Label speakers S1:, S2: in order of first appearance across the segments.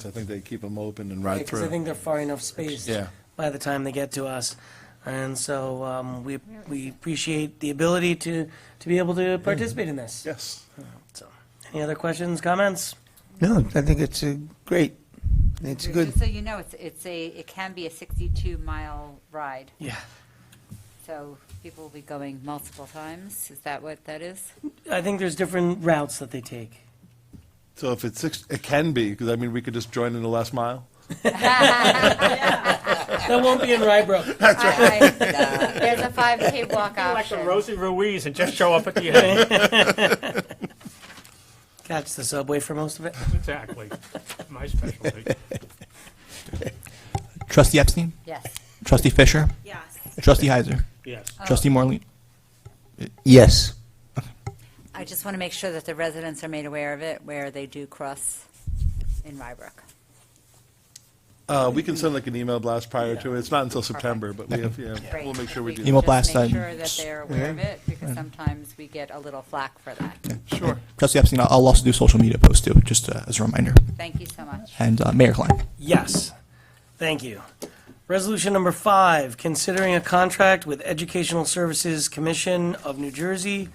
S1: So I think they keep them open and ride
S2: Because I
S1: through.
S2: think they're far enough spaced.
S1: Yeah.
S2: By the time they get to us. And so um, we, we appreciate the ability to, to be able to participate in this.
S1: Yes.
S2: So, Any other questions, comments?
S3: No, I think it's uh, great. It's good.
S4: Just so you know, it's, it's a, it can be a 62-mile ride,
S2: Yeah.
S4: so people will be going multiple times. Is that what that is?
S2: I think there's different routes that they take.
S1: So if it's six, it can be, because I mean, we could just join in the last mile.
S2: That won't be in Rybrook.
S4: That's right. There's a 5K walk
S5: Like the
S4: option.
S5: Rosie Ruiz and just show up at the end.
S2: Catch the subway for most of it.
S5: Exactly. My specialty.
S6: Trustee Epstein?
S4: Yes.
S6: Trustee Fisher?
S7: Yes. Uh,
S6: Trustee Heiser?
S5: Yes.
S6: Trustee Morley?
S3: Yes.
S4: I just want to make sure that the residents are made aware of it, where they do cross in Rybrook.
S1: Uh, we can send like an email blast prior to it. It's not until September, but we have, yeah,
S4: Great.
S1: we'll make sure we
S4: If
S1: do.
S4: could
S6: Email
S4: just
S6: blast
S4: Make
S6: that.
S4: sure that they're aware of it, because sometimes we get a little flack for that.
S1: Sure.
S6: Trustee Epstein, I'll- I'll also do social media posts too, just uh, as a reminder.
S4: Thank you so much.
S6: And uh, Mayor Klein?
S2: Yes. Thank you. Resolution number five, considering a contract with Educational Services Commission of New Jersey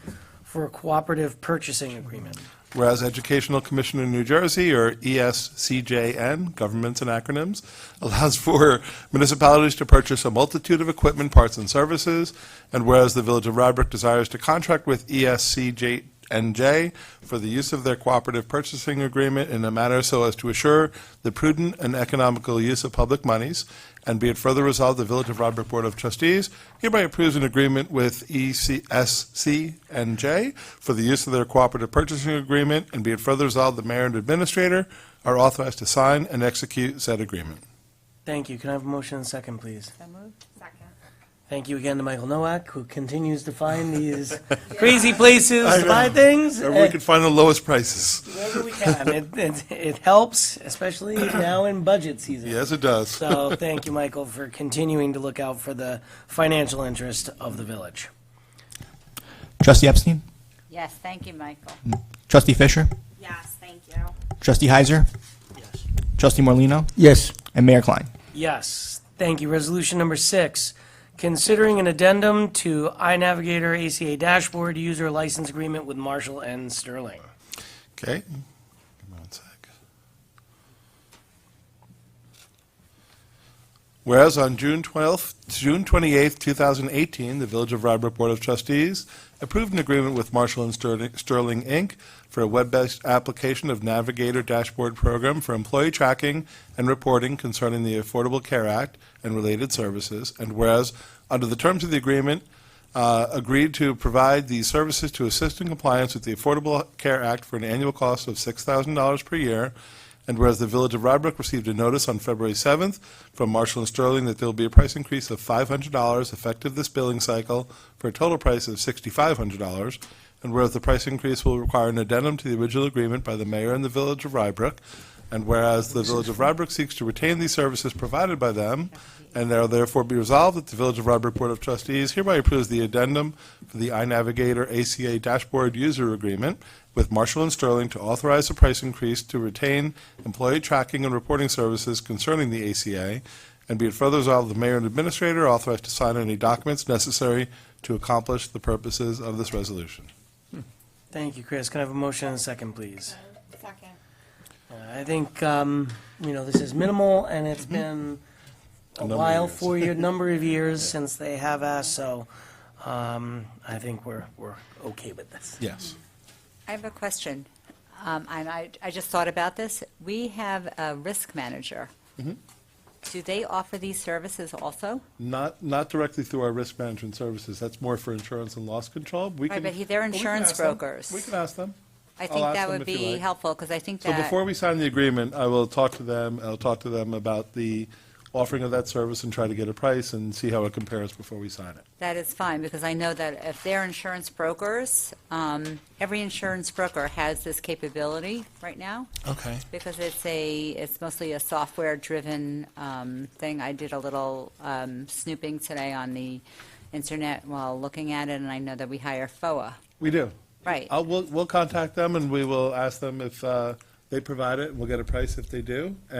S2: for a cooperative purchasing agreement.
S1: Whereas Educational Commissioner in New Jersey, or E ESCJN, governments and acronyms, allows for municipalities to purchase a multitude of equipment, parts, and services, and whereas the Village of Rybrook desires to contract with E ESCJNJ for the use of their cooperative purchasing agreement in a manner so as to assure the prudent and economical use of public monies, and be it further resolved, the Village of Rybrook Board of Trustees hereby approves an agreement with E ECSCNJ for the use of their cooperative purchasing agreement, and be it further resolved, the mayor and administrator are authorized to sign and execute said agreement.
S2: Thank you. Can I have a motion and a second, please?
S4: So moved? Second.
S2: Thank you again to Michael Nowak, who continues to find these crazy places to buy things.
S1: Or we
S2: eh,
S1: could find the lowest prices.
S2: Wherever we can. It, it, it helps, especially now in budget season.
S1: Yes, it does.
S2: So thank you, Michael, for continuing to look out for the financial interest of the village.
S6: Trustee Epstein?
S4: Yes, thank you, Michael.
S6: Trustee Fisher?
S7: Yes, thank you.
S6: Trustee Heiser? Trustee Morlino?
S3: Yes.
S6: And Mayor Klein?
S2: Yes, thank you. Resolution number six, considering an addendum to iNavigator ACA dashboard user license agreement with Marshall and Sterling.
S1: Okay. Give me one sec. Whereas on June 12th, June 28th, 2018, the Village of Rybrook Board of Trustees approved an agreement with Marshall and Sterling, Sterling Inc. for a web-based application of Navigator Dashboard Program for employee tracking and reporting concerning the Affordable Care Act and related services. And whereas, under the terms of the agreement, uh, agreed to provide these services to assist in compliance with the Affordable Care Act for an annual cost of $6,000 per year. And whereas the Village of Rybrook received a notice on February 7th from Marshall and Sterling that there will be a price increase of $500 effective this billing cycle for a total price of $6,500. And whereas the price increase will require an addendum to the original agreement by the mayor and the Village of Rybrook. And whereas the Village of Rybrook seeks to retain these services provided by them, and now therefore be resolved that the Village of Rybrook Board of Trustees hereby approves the addendum for the iNavigator ACA dashboard user agreement with Marshall and Sterling to authorize a price increase to retain employee tracking and reporting services concerning the ACA, and be it further resolved, the mayor and administrator are authorized to sign any documents necessary to accomplish the purposes of this resolution.
S2: Thank you, Chris. Can I have a motion and a second, please? Uh,
S7: Second.
S2: I think, um, you know, this is minimal, and it's been
S1: Mm-hmm.
S2: a
S1: number of
S2: while,
S1: years.
S2: for a number of years since they have asked, so, um, I think we're, we're okay with this.
S1: Yes.
S4: I have a question, um, and I, I just thought about this. We have a risk manager.
S1: Mm-hmm.
S4: Do they offer these services also?
S1: Not, not directly through our risk management services. That's more for insurance and loss control. We
S4: Right,
S1: can-
S4: but he- they're
S1: but we can
S4: insurance
S1: ask them.
S4: brokers.
S1: We can ask them.
S4: I
S1: I'll
S4: think
S1: ask
S4: that
S1: them if
S4: would
S1: you
S4: be
S1: like.
S4: helpful, because I think
S1: So
S4: that,
S1: before we sign the agreement, I will talk to them, I'll talk to them about the offering of that service and try to get a price and see how it compares before we sign it.
S4: that is fine, because I know that if they're insurance brokers, um, every insurance broker has this capability right now,
S1: Okay.
S4: because it's a, it's mostly a software-driven um, thing. I did a little um, snooping today on the internet while looking at it, and I know that we hire FOA.
S1: We do.
S4: Right.
S1: I'll, we'll, we'll contact them and we will ask them if, uh, they provide it, we'll get a price if they do,